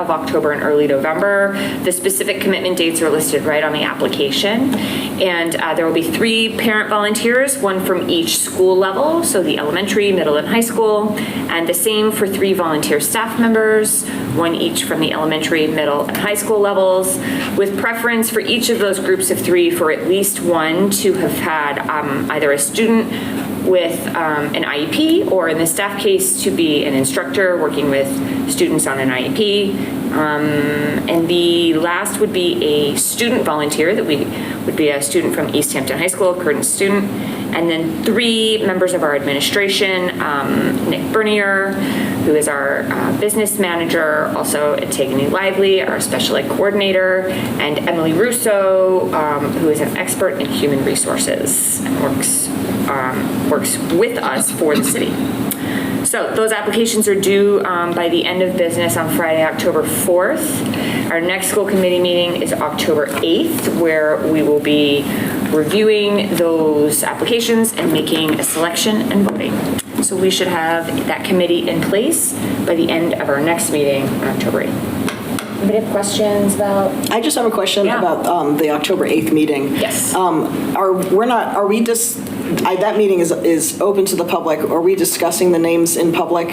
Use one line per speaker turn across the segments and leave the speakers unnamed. of October and early November. The specific commitment dates are listed right on the application. And uh, there will be three parent volunteers, one from each school level, so the elementary, middle, and high school, and the same for three volunteer staff members, one each from the elementary, middle, and high school levels, with preference for each of those groups of three for at least one to have had um, either a student with um, an IEP, or in the staff case, to be an instructor working with students on an E IEP. Um, And the last would be a student volunteer, that we, would be a student from East Hampton High School, current student. And then three members of our administration, um, Nick Bernier, who is our uh, business manager, also Antigone Lively, our special ed coordinator, and Emily Russo, um, who is an expert in human resources and works, um, works with us for the city. So those applications are due um, by the end of business on Friday, October 4th. Our next school committee meeting is October 8th, where we will be reviewing those applications and making a selection and voting. So we should have that committee in place by the end of our next meeting on October 8th. Anybody have questions about?
I just have a question
Yeah.
about um, the October 8th meeting.
Yes.
Um, Are, we're not, are we just, I- that meeting is, is open to the public. Are we discussing the names in public?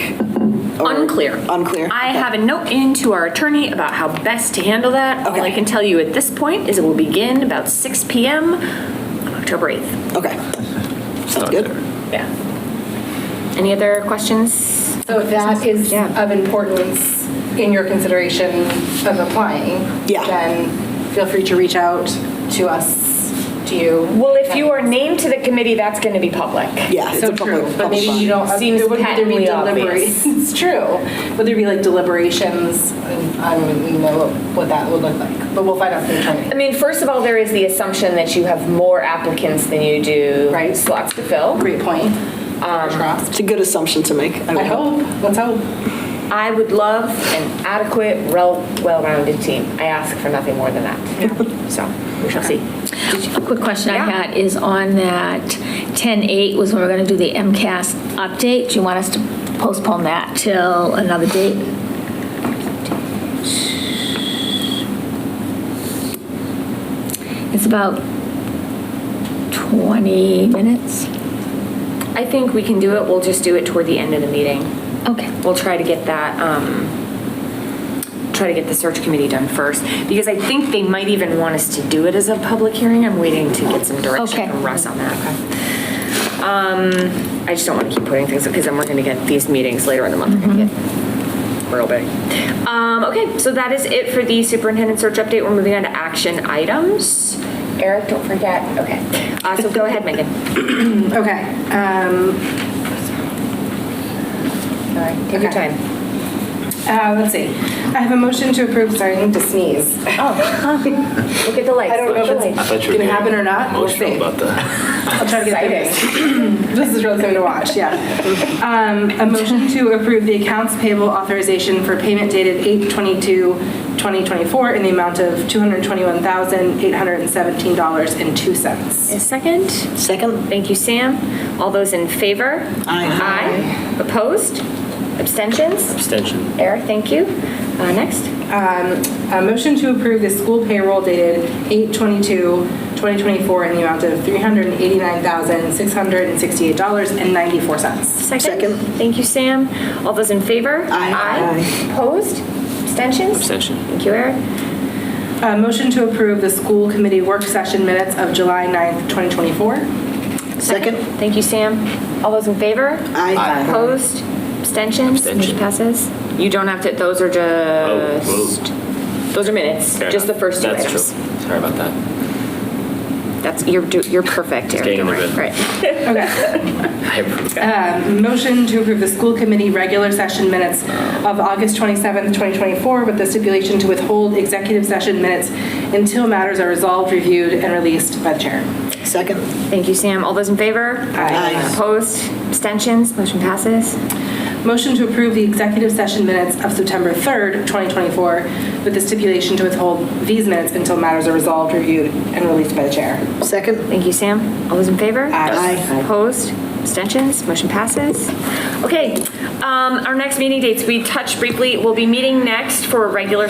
Or-
Unclear.
Unclear?
I
Okay.
have a note in to our attorney about how best to handle that. All I
Okay.
can tell you at this point is it will begin about 6 PM on October 8th.
Okay. Sounds good.
Yeah. Any other questions?
So that is
Yeah.
of importance in your consideration of applying.
Yeah.
Then feel free to reach out to us, to you.
Well, if you are named to the committee, that's going to be public.
Yeah, it's
So
a public.
true, but
public
maybe you
body.
don't,
Seems
there wouldn't there be
patently
deliberations. It's true. Would there be like deliberations? I don't even know what that would look like, but we'll find out from the
I
attorney.
mean, first of all, there is the assumption that you have more applicants than you do
Right.
slots to fill.
Great point. Um, Fingers crossed.
It's a good assumption to make.
I hope, let's hope.
I would love an adequate, rel- well-rounded team. I ask for nothing more than that. So, we shall see.
A quick question I
Yeah.
had is on that 10-8 was when we're going to do the MCAS update. Do you want us to postpone that till another date? It's about 20 minutes.
I think we can do it. We'll just do it toward the end of the meeting.
Okay.
we'll try to get that, um, try to get the search committee done first, because I think they might even want us to do it as a public hearing. I'm waiting to get some direction
Okay.
from Russ on that. Um, I just don't want to keep putting things, because then we're going to get these meetings later in the month. are gonna get Real big. Um, okay, so that is it for the superintendent search update. We're moving on to action items. Eric, don't forget, okay. Uh, so go ahead, Megan.
Okay. um, Sorry.
Take your
Okay.
time.
Uh, let's see. I have a motion to approve, sorry, I need to sneeze.
Look at the lights.
I don't know if it's
thought you were
going to happen
getting
or not. We'll
emotional
see.
about that.
I'll try to get it. This is really something to watch, yeah. Um, A motion to approve the accounts payable authorization for payment dated 8/22/2024 in the amount of $221,817.02.
A second?
Second?
Thank you, Sam. All those in favor? Aye. Aye. Opposed? Abstentions?
Abstention.
Eric, thank you. Uh, Next.
A motion to approve the school payroll dated 8/22/2024 in the amount of $389,668.94.
Second.
Thank you, Sam. All those in favor?
Aye.
Aye. Opposed? Abstentions?
Abstention.
Thank you, Eric.
A Uh, motion to approve the school committee work session minutes of July 9th, 2024.
Second?
Thank you, Sam. All those in favor?
Aye.
Opposed? Abstentions? Motion
Abstention.
passes? You don't have to, those are just,
whoa.
those are minutes,
Fair
Uh, just the
enough.
first two
That's true.
items.
Sorry about that.
That's, you're, do- you're perfect, Eric.
getting in
Don't worry.
the rhythm.
Right.
Okay.
I approve.
Uh, Motion to approve the school committee regular session minutes of August 27th, 2024, with the stipulation to withhold executive session minutes until matters are resolved, reviewed, and released by the chair.
Second?
Thank you, Sam. All those in favor?
Aye.
Opposed? Abstentions? Motion passes?
Motion to approve the executive session minutes of September 3rd, 2024, with the stipulation to withhold these minutes until matters are resolved, reviewed, and released by the chair.
Second?
Thank you, Sam. All those in favor?
Aye. Aye.
Opposed? Abstentions? Motion passes? Okay, Um, Our next meeting dates, we touched briefly, we'll be meeting next for a regular